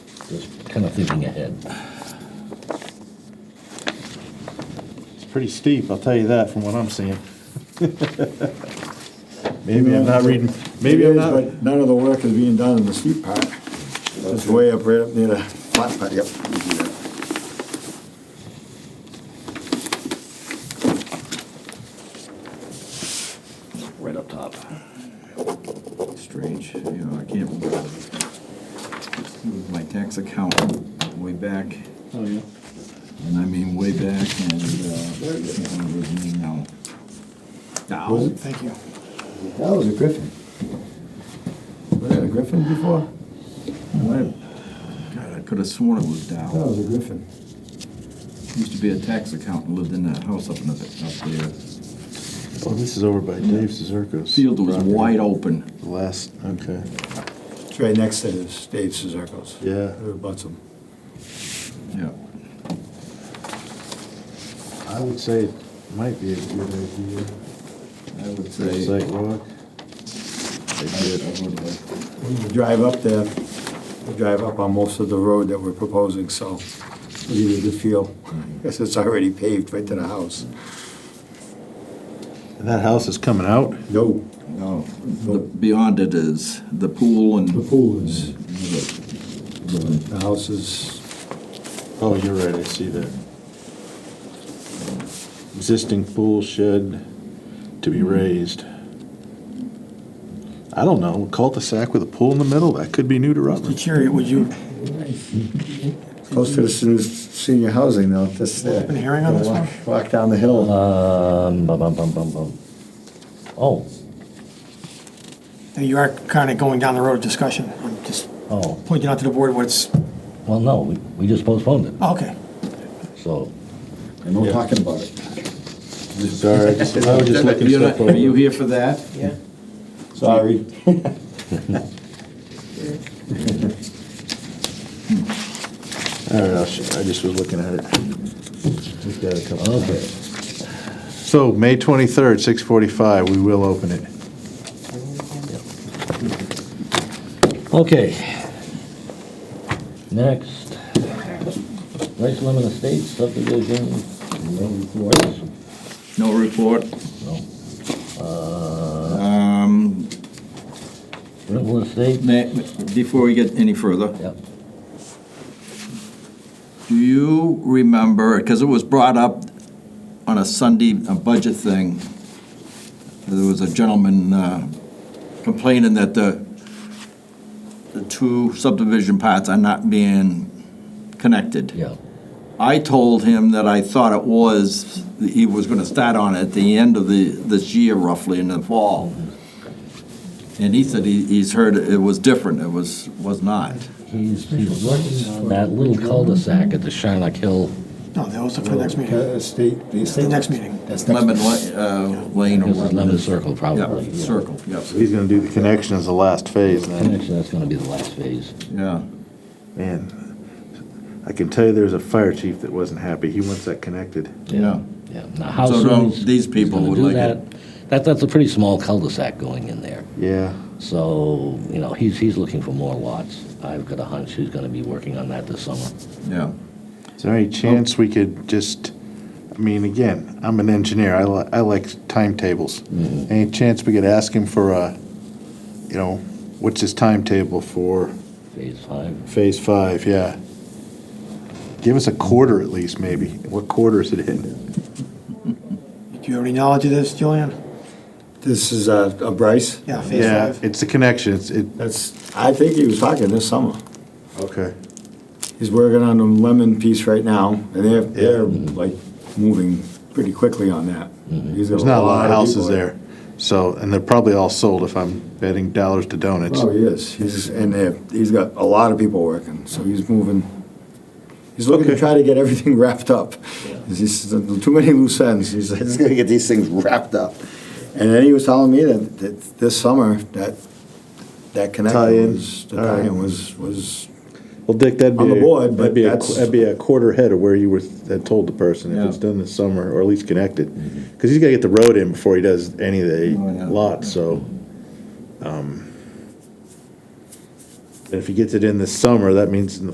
Just kind of thinking ahead. It's pretty steep, I'll tell you that, from what I'm seeing. Maybe I'm not reading, maybe It I'm is, not, but None of the work is being done in the steep part. It's way up, right up near the flat part, yep. you see that. right up top. Strange, you know, I can't. With My tax account way back, Oh, yeah. and I mean way back, and, uh, I can't remember his name now. Was Now, it? Thank you. That was a griffin. Was that a griffin before? I- God, I could have sworn it was That Dow. Oh. was a griffin. Used to be a tax accountant, lived in that house up in the, up there. oh, this is over by Dave Cizerco's. Field was wide open. Last, okay, It's right next to Dave Cizerco's. Yeah. Or butts him. Yeah. I would say it might be a good idea. I would for a say. Site walk. I would like- We drive up there, we drive up on most of the road that we're proposing, so we need a good feel. Guess it's already paved right to the house. And that house is coming out? No, No, the- beyond it is the pool and. the pool is, the- the house is, Oh, you're right, I see that. Existing pool shed to be raised. I don't know, cul-de-sac with a pool in the middle, that could be new to Rutland. Chariot, would you? close to the sen- senior housing though, that's there. Open hearing on this one? Walk down the hill. Um, bum, bum, bum, bum, bum. Oh, Now, You are kind of going down the road of discussion. I'm just oh, pointing out to the board what's, well, no, we, we just postponed it, oh, okay. so. And no talking about it. Sorry, I just- I was just looking You're stuff not- Are you over. here for that? Yeah. Sorry. All right, I'll sh- I just was looking at it. Looked at it a couple times. Okay, So, May 23rd, 6:45, we will open it. okay. Next, Rice Lemon Estates subdivision, no reports, No report. no. Uh, Um, Brentwood Estate, na- Before we get any further, yep, do you remember, because it was brought up on a Sunday, a budget thing, there was a gentleman uh, complaining that the, the two subdivision parts are not being connected. yeah, I told him that I thought it was, he was gonna start on it at the end of the, this year roughly in the fall. And he said he, he's heard it was different, it was, was not. he's, he's working on that little cul-de-sac at the Shylock Hill, No, those are for the next meeting. Uh, State. The next meeting. That's next. Lemon, Lane- uh, Lane or this is whatever. Lemon Circle probably. Yeah, circle, yes, He's gonna do the connection as the last phase then. Connection, that's gonna be the last phase. yeah. Man, I can tell you there's a fire chief that wasn't happy. He wants that connected. Yeah. Yeah, now how So soon don't- he's- these he's people gonna would do like that- it. That, that's a pretty small cul-de-sac going in there. Yeah. So, you know, he's, he's looking for more lots. I've got a hunch he's gonna be working on that this summer. Yeah. Is there any chance we could just, I mean, again, I'm an engineer, I li- I like timetables. Any chance we could ask him for a, you know, what's his timetable for Phase five, phase five, yeah? Give us a quarter at least, maybe. What quarter is it in? Do you have any knowledge of this, Julian? This is uh, a Bryce. Yeah, phase Yeah, five. it's the connection, it's, it, That's, I think he was talking this summer. okay. He's working on the lemon piece right now, and they're, they're like moving pretty quickly on that. Mm-hmm. There's not a lot of houses there, so, and they're probably all sold if I'm betting dollars to donuts. Oh, he is. He's, and they're- he's got a lot of people working, so he's moving. He's looking to try to get everything wrapped up. He's, too many loose ends. He's, he's gonna get these things wrapped up. And then he was telling me that, that this summer, that, that Tie-in. connection was, the All right. tie-in was, was Well, Dick, that'd be. On the a- board, that'd but be a that's- qu- That'd be a quarter ahead of where you were, had told the person, if it's Yeah. Mm-hmm. done this summer, or at least connected. Because he's gotta get the road in before he does any of the Oh, yeah. lots, so. um, If he gets it in this summer, that means in the